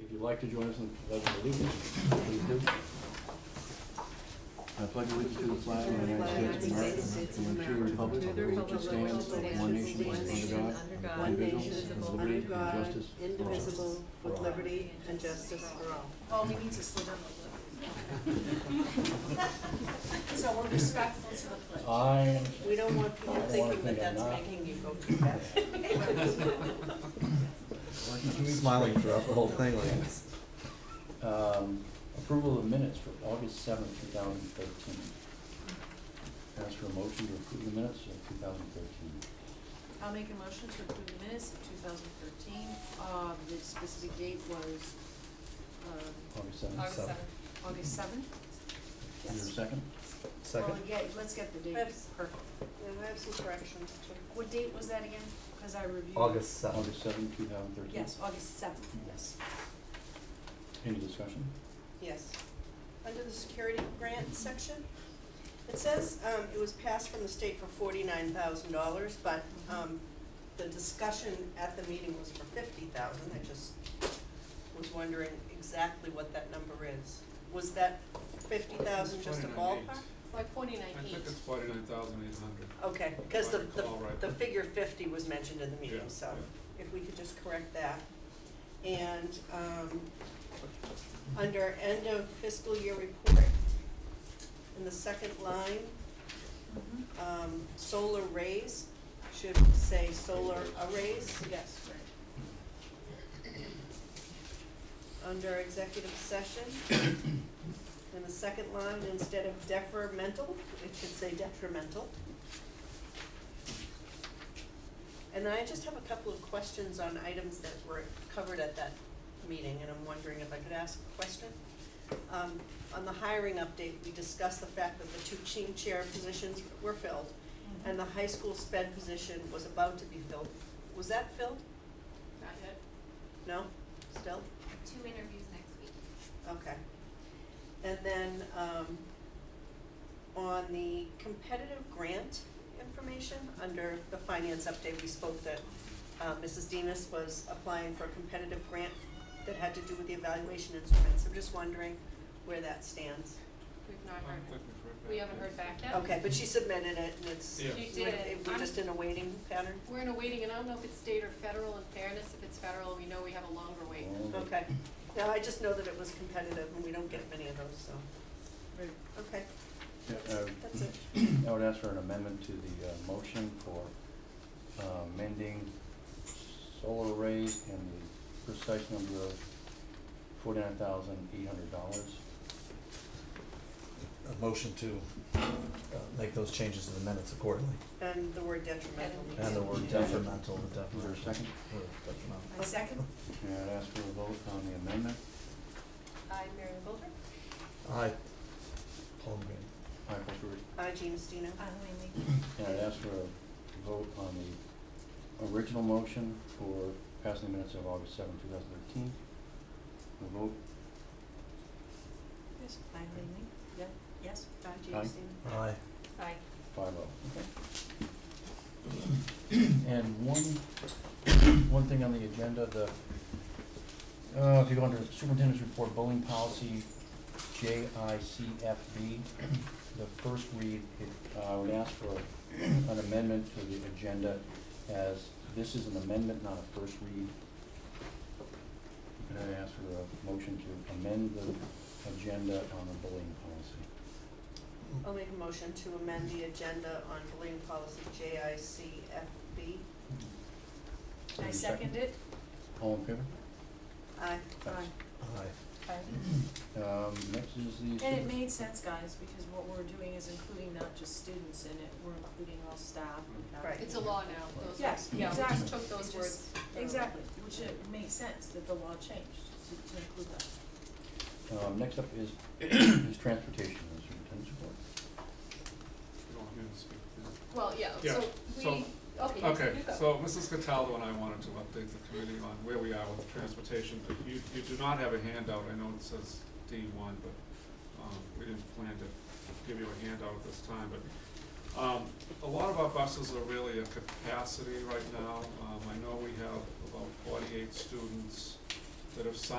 If you'd like to join us in the pledge of allegiance, please do. I pledge allegiance to the flag of the United States of America and to the republic for which it stands, one nation, under God, One indivisible, nation is with liberty above under and God, justice for all. indivisible, with liberty and justice for all. Oh, we need to slow down a little. So we're respectful to the pledge. I am. We don't want people I don't wanna thinking think that I'm that's not. making you go too fast. Smiling throughout the whole thing like this. Um, Approval of minutes for August seventh, two thousand thirteen. Ask for a motion to approve the minutes of two thousand thirteen. I'll make a motion to approve the minutes of two thousand thirteen. Um, the specific date was, um, August seventh? August seventh. August seventh? Is there a second? Well, yeah, let's get the date Yes. perfect. And I have some corrections too. What date was that again? Cause I reviewed. August seventh. August seventh, two thousand thirteen? Yes, August seventh, yes. Any discussion? Yes. Under the security grant section, it says, um, it was passed from the state for forty-nine thousand dollars, but, um, the discussion at the meeting was for fifty thousand, I just was wondering exactly what that number is. Was that fifty thousand just a ballpark? 49,800. Like forty-nine I think it's forty-nine thousand eight hundred. Oh, Okay, because the, If I the, recall right. the figure fifty was mentioned in the meeting, Yeah, so yeah. if we could just correct that. And, um, under end of fiscal year report, in the second line, um, solar rays, should say solar arrays. Yes, right. Under executive session, in the second line, instead of defermental, it should say detrimental. And then I just have a couple of questions on items that were covered at that meeting, and I'm wondering if I could ask a question. Um, on the hiring update, we discussed the fact that the two team chair positions were filled, and the high school sped position was about to be filled. Was that filled? Not yet. No? Still? two interviews next week. Okay. And then, um, on the competitive grant information, under the finance update, we spoke that, uh, Mrs. Demus was applying for a competitive grant that had to do with the evaluation instruments. I'm just wondering where that stands. We've not I heard, don't think we've heard back we haven't yet. heard back yet. Okay, but she submitted it and it's, Yeah. You we're, did. we're I'm- just in a waiting pattern? We're in a waiting, and I don't know if it's state or federal, in fairness, if it's federal, we know we have a longer wait. Okay. No, I just know that it was competitive and we don't get many of those, so. Okay, Yeah, uh, that's it. I would ask for an amendment to the uh, motion for uh, amending solar arrays and the precise number of forty-nine thousand eight hundred dollars. A motion to uh, make those changes to the minutes accordingly. And the word detrimental. And- And the word detrimental, the Is there detrimental. a second? Or detrimental. I second. And I'd ask for a vote on the amendment. I, Mary Lou Goldberg. Aye. Paul Green. Aye, Coulter. I, Gina Stino. And I'd ask for a vote on the original motion for passing the minutes of August seventh, two thousand thirteen. The vote, Yes, I, Yeah, yes, I, Aye. Gina Stino. Aye. Aye. Five oh, okay. And one, one thing on the agenda, the, uh, if you go under superintendent's report, bullying policy, J I C F B, the first read, it, uh, would ask for an amendment to the agenda as this is an amendment, not a first read. And I ask for a motion to amend the agenda on the bullying policy. I'll make a motion to amend the agenda on bullying policy JICFB. Is there I a second it. All in favor? Aye. Thanks. Aye. Aye. Um, next is the. And it super- made sense, guys, because what we're doing is including not just students in it, we're including all staff and faculty. Right. It's a law now, those Yes, words, yeah, we exactly. just took It those just- words. Exactly, which it makes sense that the law changed to, to include that. Um, next up is, is transportation, the superintendent's report. You don't want me to speak, do you? Well, yeah, Yeah, so so- we, okay, you- Okay, you go. so Mrs. Cataldo and I wanted to update the committee on where we are with transportation. But You, you do not have a handout, I know it says D one, but, um, we didn't plan to give you a handout at this time, but, um, a lot of our buses are really at capacity right now. Um, I know we have about forty-eight students that have signed